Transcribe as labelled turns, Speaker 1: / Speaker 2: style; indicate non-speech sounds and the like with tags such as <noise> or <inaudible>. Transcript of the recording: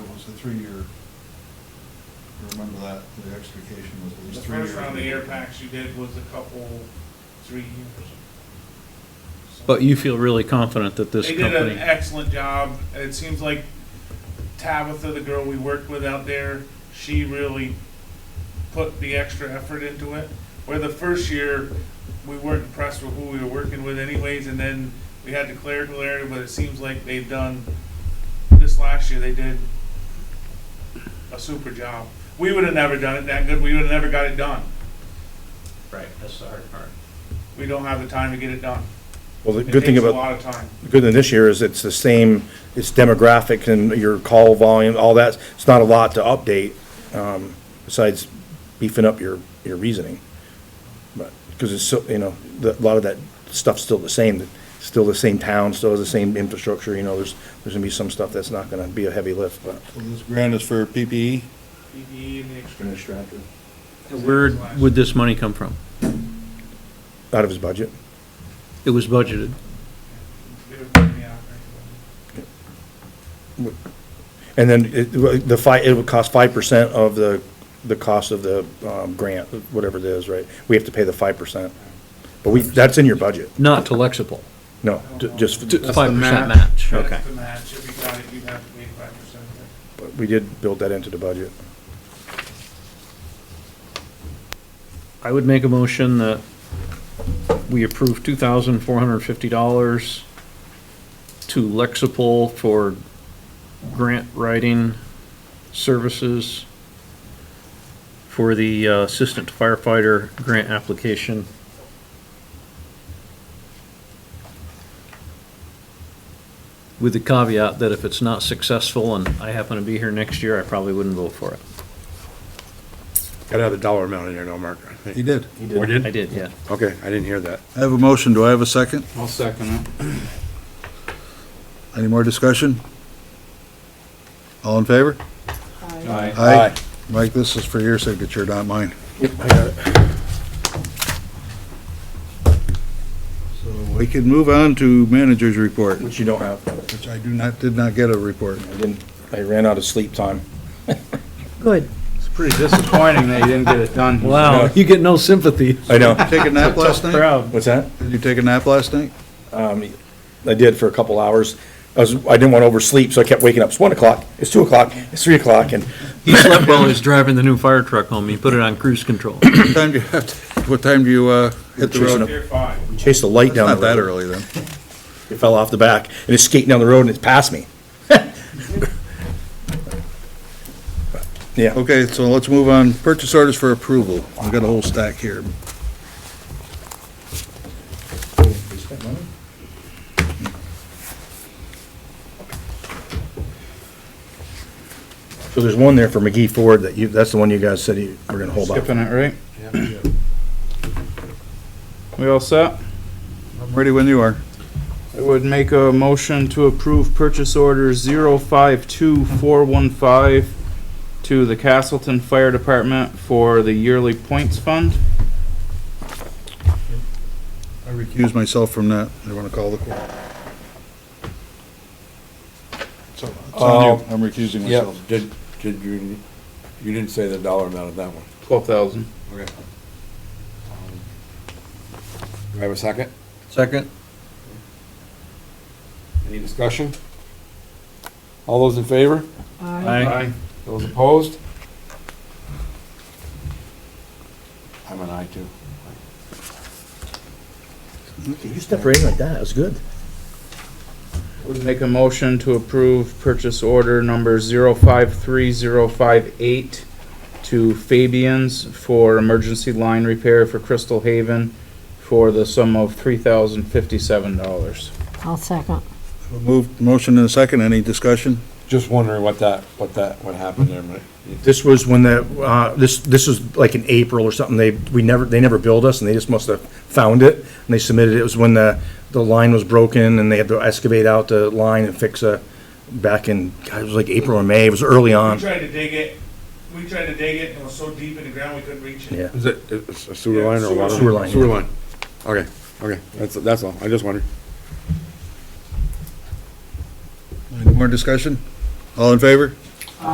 Speaker 1: the three-year, remember that, the extrication was at
Speaker 2: The
Speaker 1: least three years.
Speaker 2: first round of air packs you did was a couple, three years. So-
Speaker 3: But you feel really confident that this
Speaker 2: They did an
Speaker 3: company,
Speaker 2: excellent job. It seems like Tabitha, the girl we worked with out there, she really put the extra effort into it. Where the first year, we weren't impressed with who we were working with anyways, and then we had the clerical area, but it seems like they've done, this last year, they did a super job. We would have never done it that good. We would have never got it done.
Speaker 4: Right, that's the hard part.
Speaker 2: We don't have the time to get it done.
Speaker 5: Well, the
Speaker 2: It
Speaker 5: good thing
Speaker 2: takes a
Speaker 5: about,
Speaker 2: lot of time.
Speaker 5: the good thing this year is it's the same, it's demographic and your call volume, all that. It's not a lot to update, um, besides beefing up your, your reasoning. But, because it's so, you know, the, a lot of that stuff's still the same, still the same town, still has the same infrastructure, you know, there's, there's gonna be some stuff that's not gonna be a heavy lift, but.
Speaker 1: So this grant is for E? PPE?
Speaker 2: PPE E and the extra.
Speaker 3: where would this money come from?
Speaker 5: Out of his budget.
Speaker 3: It was budgeted.
Speaker 2: They would bring me out there.
Speaker 5: And then it, the fi, it would cost five percent of the, the cost of the, um, grant, whatever it is, right? We have to pay the five percent. But we, that's in your budget,
Speaker 3: Not to Lexipol,
Speaker 5: no, ju- just,
Speaker 3: to
Speaker 6: the
Speaker 3: five percent
Speaker 6: match.
Speaker 3: match.
Speaker 6: Okay.
Speaker 2: That's the match, if you got it, you'd have to pay five percent.
Speaker 5: but we did build that into the budget.
Speaker 3: I would make a motion that we approve two thousand four hundred and fifty dollars to Lexipol for grant writing services for the uh, assistant firefighter grant application. With the caveat that if it's not successful and I happen to be here next year, I probably wouldn't vote for it.
Speaker 6: Got another dollar amount in there, no, Mark?
Speaker 1: He did.
Speaker 6: Or
Speaker 3: I
Speaker 6: did?
Speaker 3: did, yeah.
Speaker 6: Okay, I didn't hear that.
Speaker 1: I have a motion, do I have a second?
Speaker 4: I'll second it.
Speaker 1: Any more discussion? All in favor?
Speaker 4: Aye.
Speaker 1: Aye. Mike, this is for your signature, not mine.
Speaker 5: I got it.
Speaker 1: So we can move on to manager's report,
Speaker 5: Which you don't have.
Speaker 1: which I do not, did not get a report.
Speaker 5: I didn't, I ran out of sleep time.
Speaker 3: Good.
Speaker 4: It's pretty disappointing that you didn't get it done.
Speaker 3: Wow, you get no sympathy.
Speaker 5: I know.
Speaker 1: Take a
Speaker 5: <laughs>
Speaker 1: nap last night?
Speaker 3: Proud.
Speaker 5: What's that?
Speaker 1: Did you take a nap last night?
Speaker 5: Um, I did for a couple hours. I was, I didn't want to oversleep, so I kept waking up. It's one o'clock, it's two o'clock, it's three o'clock, and
Speaker 3: He slept while he was driving the new fire truck home. He put it on cruise control.
Speaker 1: What time do you have, to- what time do you, uh, hit the
Speaker 5: Chasing
Speaker 1: road?
Speaker 5: up-
Speaker 2: Tier five.
Speaker 5: chased the light
Speaker 1: It's
Speaker 5: down the
Speaker 1: Not
Speaker 5: road.
Speaker 1: that early then.
Speaker 5: It fell off the back, and it's skating down the road, and it's past me. Yeah,
Speaker 1: Okay, so let's move on. Purchase orders for approval. I've got a whole stack here.
Speaker 5: so there's one there for McGee Ford that you, that's the one you guys said you were gonna hold off.
Speaker 4: Skipping it, right? We all set?
Speaker 1: I'm ready when you are.
Speaker 4: I would make a motion to approve purchase order zero five two four one five to the Castleton Fire Department for the yearly points fund.
Speaker 1: I recuse myself from that. I want to call the court. So, it's on you. I'm recusing
Speaker 7: Yeah,
Speaker 1: myself.
Speaker 7: did, did you, you didn't say the dollar amount of that one.
Speaker 4: Twelve thousand.
Speaker 7: Okay. Do I have a second?
Speaker 6: Second?
Speaker 7: Any discussion? All those in favor?
Speaker 3: I,
Speaker 7: Those opposed? I'm an aye too.
Speaker 5: You stepped right in like that, that was good.
Speaker 4: Would make a motion to approve purchase order number zero five three zero five eight to Fabians for emergency line repair for Crystal Haven for the sum of three thousand fifty-seven dollars.
Speaker 8: I'll second.
Speaker 1: Move, motion and a second. Any discussion?
Speaker 7: Just wondering what that, what that, what happened there, but
Speaker 5: This was when the, uh, this, this was like in April or something, they, we never, they never billed us, and they just must have found it, and they submitted, it It was when the, the line was broken, and they had to excavate out the line and fix a, back in, God, it was like April or May, it was early
Speaker 2: We
Speaker 5: on.
Speaker 2: tried to dig it, we tried to dig it, and it was so deep in the ground, we couldn't reach it.
Speaker 5: Yeah.
Speaker 7: Is it, it's a sewer line or water?
Speaker 5: Sewer line, yeah.
Speaker 7: Sewer line. Okay, okay, that's, that's all. I just wondered.
Speaker 1: Any more discussion? All in favor?